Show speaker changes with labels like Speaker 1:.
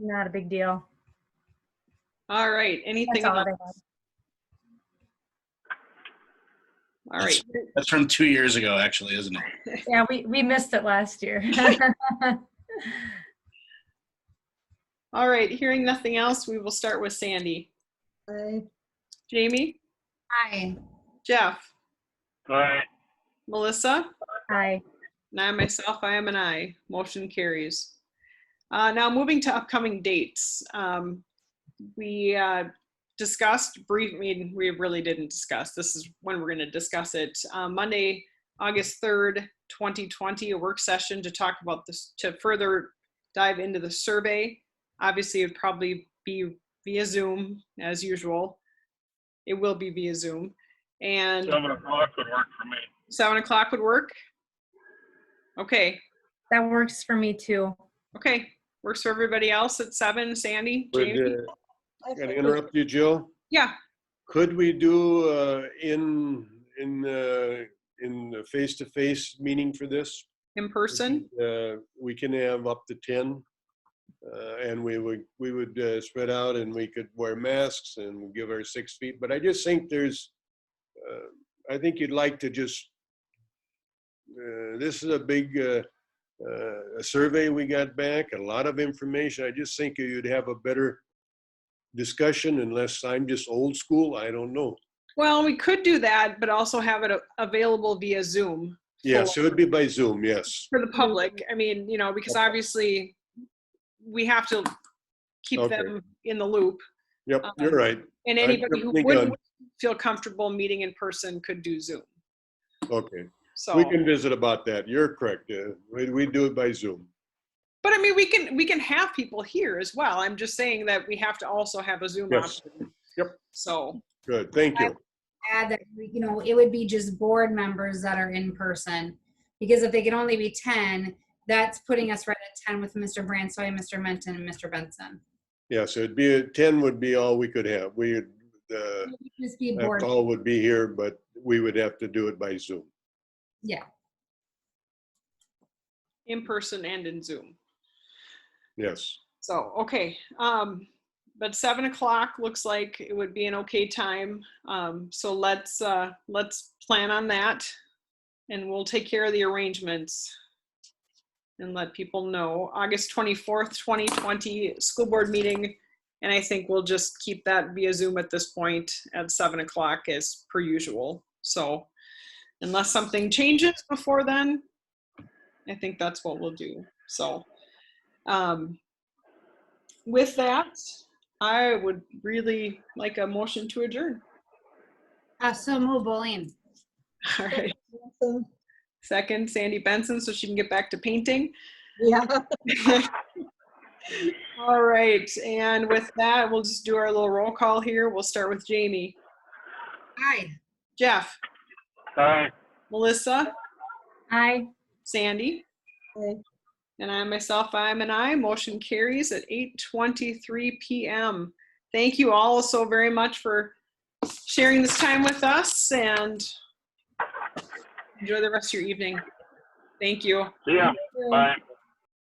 Speaker 1: Not a big deal.
Speaker 2: All right, anything
Speaker 1: That's all
Speaker 2: else?
Speaker 1: I have.
Speaker 2: All right,
Speaker 3: That's from two years ago, actually, isn't it?
Speaker 1: Yeah, we, we missed it last year.
Speaker 2: all right, hearing nothing else, we will start with Sandy.
Speaker 4: Aye.
Speaker 2: Jamie?
Speaker 4: Aye.
Speaker 2: Jeff?
Speaker 5: Aye.
Speaker 2: Melissa?
Speaker 1: Hi.
Speaker 2: And I myself, I am an I. Motion carries. Uh, Now, moving to upcoming dates. um, We uh, discussed brief, I mean, we really didn't discuss. This is when we're going to discuss it. Uh, Monday, August 3rd, 2020, a work session to talk about this, to further dive into the survey. Obviously, it'd probably be via Zoom as usual. It will be via Zoom. And
Speaker 5: Seven o'clock would work for me.
Speaker 2: 7 o'clock would work? Okay,
Speaker 1: That works for me too.
Speaker 2: Okay, works for everybody else at seven, Sandy,
Speaker 6: Would,
Speaker 2: Jamie?
Speaker 6: uh, Can I interrupt you, Jill?
Speaker 2: Yeah,
Speaker 6: Could we do uh, in, in, uh, in the face-to-face meeting for this?
Speaker 2: in person,
Speaker 6: Uh, We can have up to 10. uh, And we would, we would uh, spread out and we could wear masks and give our six feet. But I just think there's, uh, I think you'd like to just, uh, this is a big uh, uh, a survey we got back, a lot of information. I just think you'd have a better discussion unless I'm just old school. I don't know.
Speaker 2: well, we could do that, but also have it a- available via Zoom
Speaker 6: Yes, it would be by Zoom, yes.
Speaker 2: for the public. I mean, you know, because obviously we have to keep
Speaker 6: Okay.
Speaker 2: them in the loop.
Speaker 6: Yep, you're right.
Speaker 2: And
Speaker 6: I
Speaker 2: anybody who
Speaker 6: think,
Speaker 2: wouldn't
Speaker 6: uh,
Speaker 2: feel comfortable meeting in person could do Zoom,
Speaker 6: Okay.
Speaker 2: so.
Speaker 6: We can visit about that. You're correct. Uh, We, we do it by Zoom.
Speaker 2: But I mean, we can, we can have people here as well. I'm just saying that we have to also have a Zoom
Speaker 6: Yes.
Speaker 2: option.
Speaker 6: Yep.
Speaker 2: So,
Speaker 6: Good, thank you.
Speaker 4: Add that, you know, it would be just board members that are in person. Because if they can only be ten, that's putting us right at ten with Mr. Bransoy, Mr. Menton, and Mr. Benson.
Speaker 6: Yeah, so it'd be, 10 would be all we could have. We, uh,
Speaker 4: It would Just be board.
Speaker 6: that's all would be here, but we would have to do it by Zoom.
Speaker 2: in person and in Zoom.
Speaker 6: Yes,
Speaker 2: So, okay, um, but seven o'clock looks like it would be an okay time. Um, so let's, uh, let's plan on that. And we'll take care of the arrangements. And let people know, August twenty-fourth, twenty twenty, school board meeting. And I think we'll just keep that via Zoom at this point at seven o'clock as per usual. So unless something changes before then, I think that's what we'll do. So, um, with that, I would really like a motion to adjourn.
Speaker 4: Uh, so move, Boleyn.
Speaker 2: All right. Second, Sandy Benson, so she can get back to painting.
Speaker 7: Yeah.
Speaker 2: All right, and with that, we'll just do our little roll call here. We'll start with Jamie,
Speaker 4: Aye.
Speaker 2: Jeff,
Speaker 5: Aye.
Speaker 2: Melissa,
Speaker 1: Hi.
Speaker 2: Sandy.
Speaker 7: Aye.
Speaker 2: And I myself, I'm an I. Motion carries at 8:23 PM. Thank you all so very much for sharing this time with us and enjoy the rest of your evening. Thank you.
Speaker 5: See ya. Bye.